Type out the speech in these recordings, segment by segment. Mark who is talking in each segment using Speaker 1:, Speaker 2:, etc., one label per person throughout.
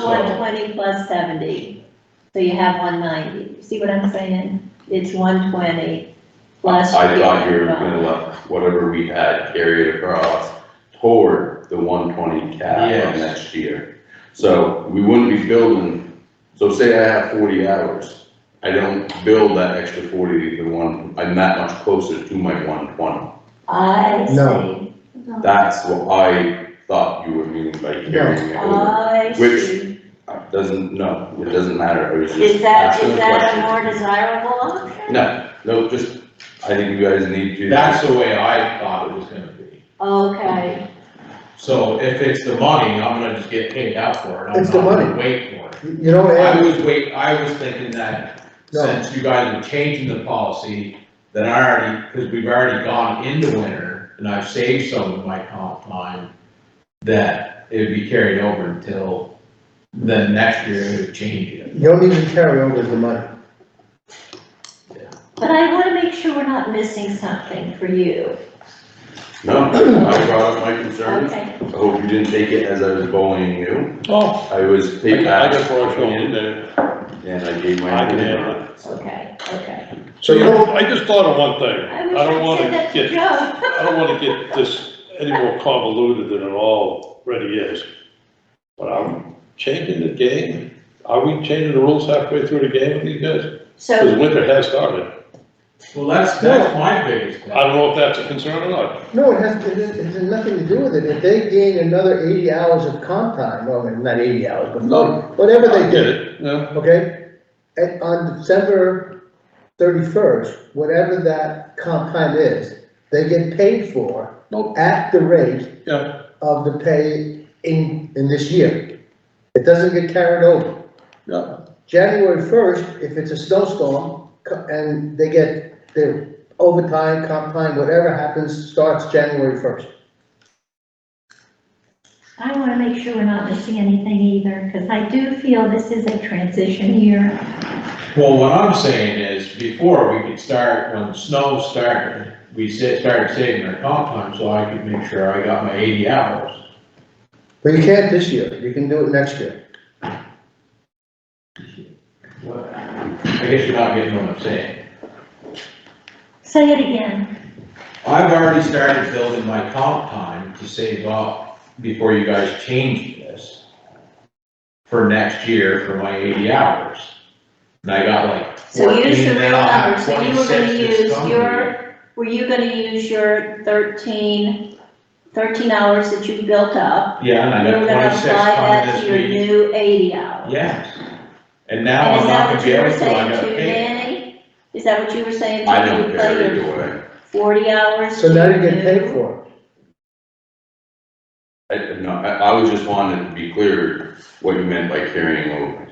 Speaker 1: Not one twenty plus seventy, so you have one ninety, see what I'm saying? It's one twenty plus.
Speaker 2: I thought you were
Speaker 1: the
Speaker 2: gonna let whatever we had carry it across toward the one twenty cap
Speaker 3: Yes.
Speaker 2: of next year. So we wouldn't be building, so say I have forty hours, I don't build that extra forty to the one, I'm that much closer to my one twenty.
Speaker 1: I
Speaker 4: No.
Speaker 1: see,
Speaker 2: That's what I thought you were meaning by carrying it over.
Speaker 1: I
Speaker 2: Which-
Speaker 1: see.
Speaker 2: Uh, Doesn't, no, it doesn't matter, I was
Speaker 1: Is
Speaker 2: just
Speaker 1: that,
Speaker 2: asking
Speaker 1: is
Speaker 2: a
Speaker 1: that a more
Speaker 2: question.
Speaker 1: desirable option?
Speaker 2: No, no, just, I think you guys need to.
Speaker 3: That's the way I thought it was gonna be.
Speaker 1: Okay,
Speaker 3: So if it's the money, I'm gonna just get paid out for it. I'm
Speaker 4: It's the
Speaker 3: not gonna
Speaker 4: money.
Speaker 3: Wait for it.
Speaker 4: You know,
Speaker 3: I
Speaker 4: Ed,
Speaker 3: was wait, I was thinking that
Speaker 4: No.
Speaker 3: since you guys were changing the policy, that I already, because we've already gone into winter and I've saved some of my comp time, that it would be carried over until the next year it would change it.
Speaker 4: you don't need to carry over the money.
Speaker 1: but I wanna make sure we're not missing something for you,
Speaker 2: No, I brought up my concerns,
Speaker 1: okay?
Speaker 2: I hope you didn't take it as I was bullying you.
Speaker 5: Oh,
Speaker 2: I was
Speaker 5: I
Speaker 2: taking
Speaker 5: got I got where I was going in there.
Speaker 2: And I gave my
Speaker 5: I can
Speaker 2: opinion
Speaker 5: handle
Speaker 2: on it. so.
Speaker 1: Okay, okay.
Speaker 4: So you don't,
Speaker 5: I just thought of one thing.
Speaker 1: I
Speaker 5: I don't
Speaker 1: wish I
Speaker 5: wanna
Speaker 1: said that to
Speaker 5: get,
Speaker 1: Joe.
Speaker 5: I don't wanna get this any more convoluted than it already is. But I'm changing the game. Are we changing the rules halfway through the game with these guys? Because
Speaker 1: So,
Speaker 5: winter has started.
Speaker 3: Well, that's, that's my biggest
Speaker 5: I
Speaker 3: question.
Speaker 5: don't know if that's a concern or not.
Speaker 4: no, it has, it has- it has nothing to do with it. If they gain another eighty hours of comp time, well, not eighty hours,
Speaker 5: No.
Speaker 4: but whatever
Speaker 5: Get
Speaker 4: they did.
Speaker 5: it? Yeah.
Speaker 4: okay? And on December thirty-first, whatever that comp time is, they get paid for
Speaker 5: Nope.
Speaker 4: at the rate
Speaker 5: Yeah.
Speaker 4: of the pay in, in this year. It doesn't get carried over.
Speaker 5: Yeah.
Speaker 4: January first, if it's a snowstorm, co- and they get their overtime, comp time, whatever happens, starts January first.
Speaker 1: I wanna make sure we're not missing anything either, cause I do feel this is a transition year.
Speaker 3: Well, what I'm saying is, before we could start, when snow started, we sa- started saving our comp time, so I could make sure I got my eighty hours.
Speaker 4: But you can't this year, you can do it next year.
Speaker 3: I guess you're not getting what I'm saying.
Speaker 1: Say it again,
Speaker 3: I've already started building my comp time to save up before you guys changed this for next year for my eighty hours. And I got like
Speaker 1: so you
Speaker 3: fourteen,
Speaker 1: should
Speaker 3: now I
Speaker 1: remember,
Speaker 3: have
Speaker 1: so you were gonna
Speaker 3: 26 this
Speaker 1: use
Speaker 3: coming year.
Speaker 1: your, were you gonna use your thirteen, thirteen hours that you built up?
Speaker 3: Yeah, and I
Speaker 1: You were
Speaker 3: got
Speaker 1: gonna
Speaker 3: twenty-six
Speaker 1: apply
Speaker 3: coming
Speaker 1: that to
Speaker 3: this
Speaker 1: your
Speaker 3: week.
Speaker 1: new eighty hours.
Speaker 3: Yes. And now
Speaker 1: And
Speaker 3: I'm
Speaker 1: is that
Speaker 3: not gonna
Speaker 1: what
Speaker 3: be
Speaker 1: you
Speaker 3: able
Speaker 1: were
Speaker 3: to, I
Speaker 1: saying
Speaker 3: gotta
Speaker 1: to
Speaker 3: pay.
Speaker 1: Danny? Is that what you were saying? to him?
Speaker 2: I don't
Speaker 1: You play
Speaker 2: care
Speaker 1: your
Speaker 2: either way.
Speaker 1: Forty hours?
Speaker 4: So now
Speaker 1: to
Speaker 4: you get
Speaker 1: your
Speaker 4: paid
Speaker 1: new-
Speaker 4: for it.
Speaker 2: I, no, I, I was just wanting to be clear what you meant by carrying over.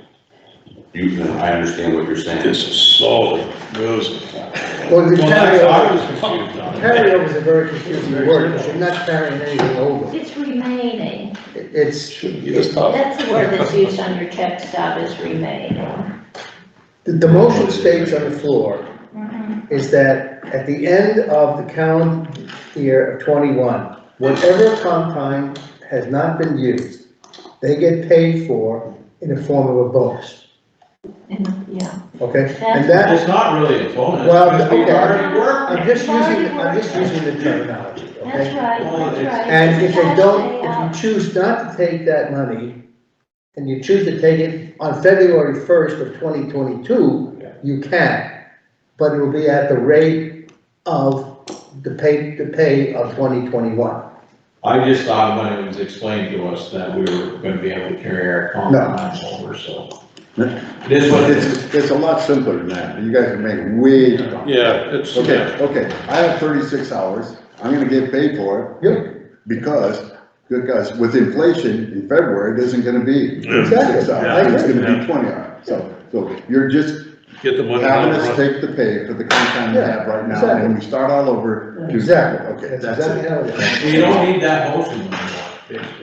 Speaker 2: You, I understand what you're saying.
Speaker 5: This is so losing.
Speaker 4: Well, the
Speaker 3: Well, that's, I
Speaker 4: carryover,
Speaker 3: was confused on it.
Speaker 4: carryover is a very confusing word, because you're not carrying anything over.
Speaker 1: It's remaining,
Speaker 4: It- It's,
Speaker 5: Shouldn't be this tough.
Speaker 1: that's the word that's used on your check stub is remaining.
Speaker 4: the, the motion states on the floor is that at the end of the calendar year of twenty-one, whatever comp time has not been used, they get paid for in the form of a bonus,
Speaker 1: And, Yeah,
Speaker 4: okay? And that,
Speaker 3: It's not really a bonus,
Speaker 4: Well,
Speaker 3: because we've
Speaker 4: okay.
Speaker 3: already worked.
Speaker 4: I'm just using, I'm just using the terminology,
Speaker 1: that's
Speaker 4: okay?
Speaker 1: right,
Speaker 3: Well,
Speaker 1: that's
Speaker 3: it's-
Speaker 1: right.
Speaker 4: And if they
Speaker 1: It's
Speaker 4: don't,
Speaker 1: actually, uh,
Speaker 4: if you choose not to take that money, and you choose to take it on February first of twenty twenty-two,
Speaker 3: Yeah.
Speaker 4: you can, but it will be at the rate of the pay, the pay of twenty twenty-one.
Speaker 3: I just thought when it was explained to us that we were gonna be able to carry our comp
Speaker 4: No.
Speaker 3: time over, so.
Speaker 6: No.
Speaker 3: This
Speaker 6: But
Speaker 3: was,
Speaker 6: it's, it's a lot simpler than that, you guys are making way,
Speaker 5: Yeah, it's,
Speaker 6: okay, okay, I have thirty-six hours, I'm gonna get paid for
Speaker 4: Yep,
Speaker 6: it, because, because with inflation in February, it isn't gonna be
Speaker 4: Exactly.
Speaker 6: thirty-six
Speaker 4: Yeah.
Speaker 6: hours, it's gonna be twenty hours, so, so you're just
Speaker 5: get the money out
Speaker 6: having
Speaker 5: of
Speaker 6: us
Speaker 5: it.
Speaker 6: take the pay for the content we have right now, and we start all over. do-
Speaker 4: exactly,
Speaker 6: Okay,
Speaker 4: that's
Speaker 6: that's
Speaker 4: exactly
Speaker 6: it.
Speaker 4: how it is.
Speaker 3: you don't need that motion anymore, basically.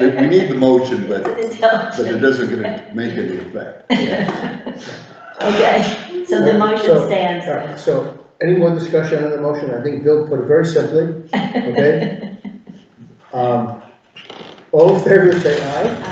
Speaker 6: we need the motion, but, but it
Speaker 1: Okay,
Speaker 6: doesn't gonna make any effect.
Speaker 1: so the
Speaker 4: So-
Speaker 1: motion stands.
Speaker 4: All right, so, any more discussion on the motion? I think Bill put it very simply, okay? Um, all in favor, say aye.